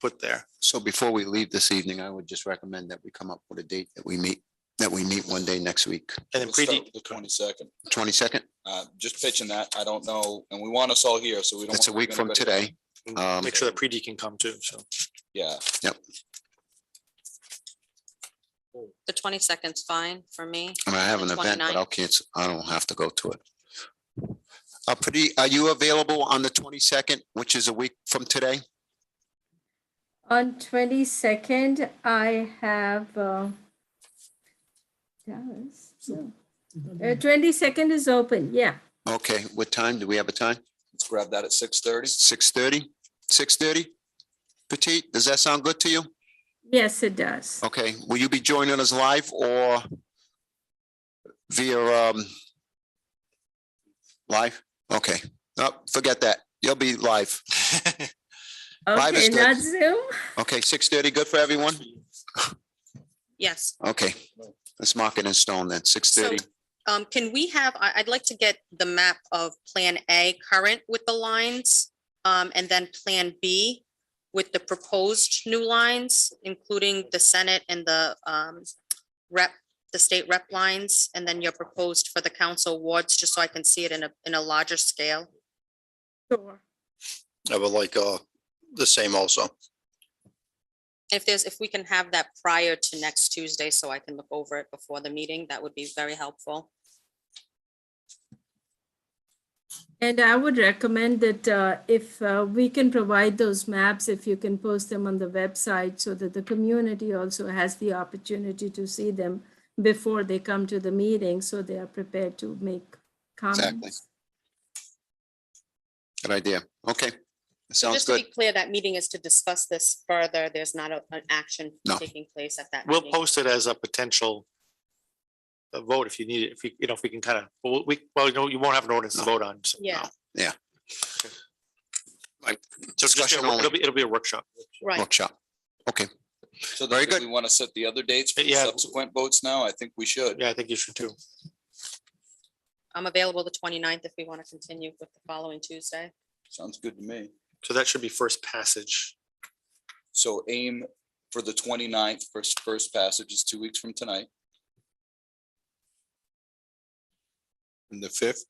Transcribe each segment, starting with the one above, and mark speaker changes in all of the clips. Speaker 1: put there.
Speaker 2: So before we leave this evening, I would just recommend that we come up with a date that we meet, that we meet one day next week,
Speaker 1: And then
Speaker 3: Let's start
Speaker 1: pre,
Speaker 3: with The twenty-second,
Speaker 2: twenty-second.
Speaker 3: uh, just pitching that, I don't know, and we want us all here, so we don't.
Speaker 2: That's a
Speaker 3: wanna leave
Speaker 2: week from
Speaker 3: anybody-
Speaker 2: today. Um,
Speaker 1: make sure the pre can come too, so.
Speaker 3: Yeah,
Speaker 4: The twenty second's fine for me.
Speaker 2: I mean, I have an event, but
Speaker 4: 29th.
Speaker 2: I'll cancel. I don't have to go to it. Uh, pretty, are you available on the twenty-second, which is a week from today?
Speaker 5: On twenty-second, I have, uh, Dallas, no. Uh, twenty-second is open, yeah.
Speaker 2: Okay, what time? Do we have a time?
Speaker 3: let's grab that at six thirty.
Speaker 2: Six thirty? Six thirty? Petite, does that sound good to you?
Speaker 5: Yes, it does.
Speaker 2: Okay, will you be joining us live or via um live? Okay, no, forget that. You'll be live. Live is
Speaker 5: Okay,
Speaker 2: good.
Speaker 5: not Zoom?
Speaker 2: Okay, six thirty, good for everyone?
Speaker 4: Yes.
Speaker 2: Okay, let's mark it in stone then, six
Speaker 4: So,
Speaker 2: thirty.
Speaker 4: um, can we have, I, I'd like to get the map of Plan A current with the lines, um, and then Plan B with the proposed new lines, including the Senate and the, um, rep, the state rep lines, and then your proposed for the council wards, just so I can see it in a, in a larger scale.
Speaker 5: Sure.
Speaker 6: I would like uh the same also.
Speaker 4: If there's, if we can have that prior to next Tuesday, so I can look over it before the meeting, that would be very helpful.
Speaker 5: And I would recommend that uh, if uh, we can provide those maps, if you can post them on the website so that the community also has the opportunity to see them before they come to the meeting, so they are prepared to make
Speaker 2: Exactly.
Speaker 5: comments.
Speaker 2: Good idea. Okay,
Speaker 4: So
Speaker 2: sounds
Speaker 4: just to
Speaker 2: good.
Speaker 4: be clear, that meeting is to discuss this further. There's not a- an action
Speaker 2: No.
Speaker 4: taking place at that.
Speaker 1: We'll
Speaker 4: meeting.
Speaker 1: post it as a potential uh, vote if you need it, if you, you know, if we can kind of, well, we, well, no, you won't have an ordinance to vote on. so no.
Speaker 4: Yeah.
Speaker 2: Yeah.
Speaker 1: Okay. Like, So it's just,
Speaker 2: Discussion
Speaker 1: it'll
Speaker 2: only,
Speaker 1: be, it'll be a workshop.
Speaker 4: Right.
Speaker 2: workshop.
Speaker 3: So
Speaker 2: Very
Speaker 3: then do
Speaker 2: good.
Speaker 3: we want to set the other dates for the
Speaker 1: Yeah.
Speaker 3: subsequent votes now, I think we should.
Speaker 1: Yeah, I think you should too.
Speaker 4: I'm available the 29th if we want to continue with the following Tuesday.
Speaker 3: Sounds good to me.
Speaker 1: So that should be first passage.
Speaker 3: So aim for the 29th. first, first passage is two weeks from tonight.
Speaker 2: And the fifth?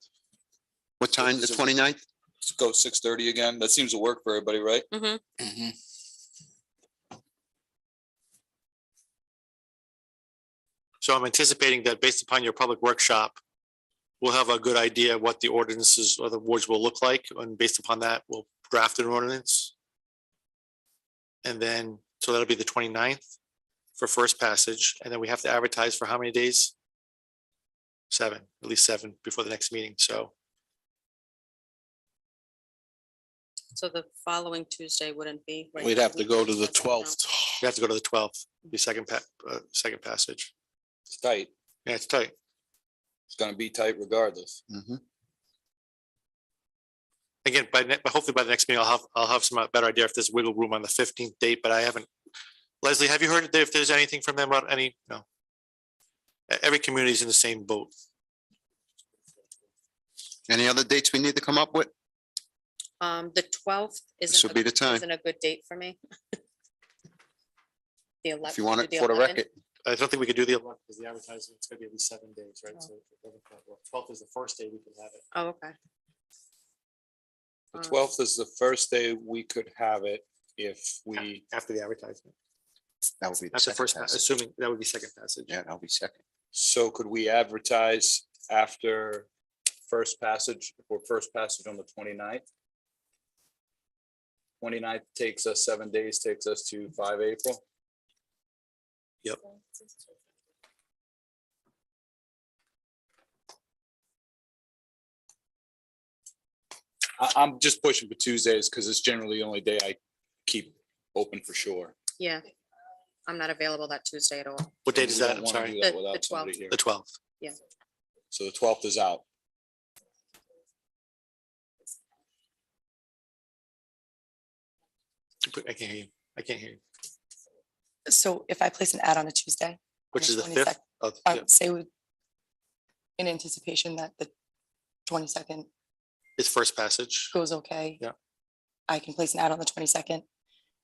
Speaker 2: What time? The
Speaker 3: So-
Speaker 2: 29th?
Speaker 3: Let's go six thirty again, that seems to work for everybody, right?
Speaker 4: Mhm.
Speaker 6: Mm-hmm.
Speaker 1: So I'm anticipating that based upon your public workshop, we'll have a good idea what the ordinances or the wards will look like, and based upon that, we'll draft an ordinance. And then, so that'll be the 29th for first passage, and then we have to advertise for how many days? Seven, at least seven before the next meeting, so
Speaker 4: So the following Tuesday wouldn't be. right,
Speaker 6: We'd
Speaker 4: the
Speaker 6: have to
Speaker 4: week
Speaker 6: go to the
Speaker 4: doesn't count.
Speaker 6: twelfth.
Speaker 1: we have to go to the twelfth, the second pa- uh, second passage.
Speaker 3: It's tight,
Speaker 1: Yeah, it's tight.
Speaker 3: it's gonna be tight regardless.
Speaker 2: Mhm.
Speaker 1: again, by ne- but hopefully by the next meeting, I'll have, I'll have some uh, better idea if there's wiggle room on the fifteenth date, but I haven't. Leslie, have you heard if there's anything from them about any, no? E- Every community is in the same boat.
Speaker 2: Any other dates we need to come up with?
Speaker 4: Um, the twelfth isn't.
Speaker 2: This would
Speaker 4: a-
Speaker 2: be the time.
Speaker 4: Isn't a good date for me. The eleventh.
Speaker 2: If you want it for the record.
Speaker 1: I don't think we could do the. Because the advertising, it's gonna be at least seven days, right? So twelfth is the first day we can have it.
Speaker 4: Oh, okay.
Speaker 3: The
Speaker 4: Um,
Speaker 3: twelfth is the first day we could have it if we,
Speaker 1: After the advertisement.
Speaker 2: That would be the
Speaker 1: That's the
Speaker 2: second
Speaker 1: first, pa-
Speaker 2: passage.
Speaker 1: assuming that would be second passage.
Speaker 2: Yeah, that'll be second.
Speaker 3: so could we advertise after first passage or first passage on the 29th? 29th takes us seven days, takes us to five April. I, I'm just pushing for Tuesdays because it's generally the only day I keep open for sure.
Speaker 4: Yeah. I'm not available that Tuesday at all.
Speaker 1: What date is
Speaker 3: We don't
Speaker 1: that? I'm
Speaker 3: wanna
Speaker 1: sorry,
Speaker 3: do that
Speaker 4: The- the
Speaker 3: without somebody
Speaker 4: 12th.
Speaker 3: here.
Speaker 1: the twelfth.
Speaker 3: So the twelfth is out.
Speaker 1: I can't hear you. I can't hear you.
Speaker 7: So if I place an ad on a Tuesday,
Speaker 1: Which is
Speaker 7: the
Speaker 1: the fifth?
Speaker 7: 22nd.
Speaker 1: of-
Speaker 7: uh,
Speaker 1: yeah,
Speaker 7: say with- in anticipation that the twenty-second
Speaker 1: It's first passage.
Speaker 7: goes okay.
Speaker 1: Yeah.
Speaker 7: I can place an ad on the twenty-second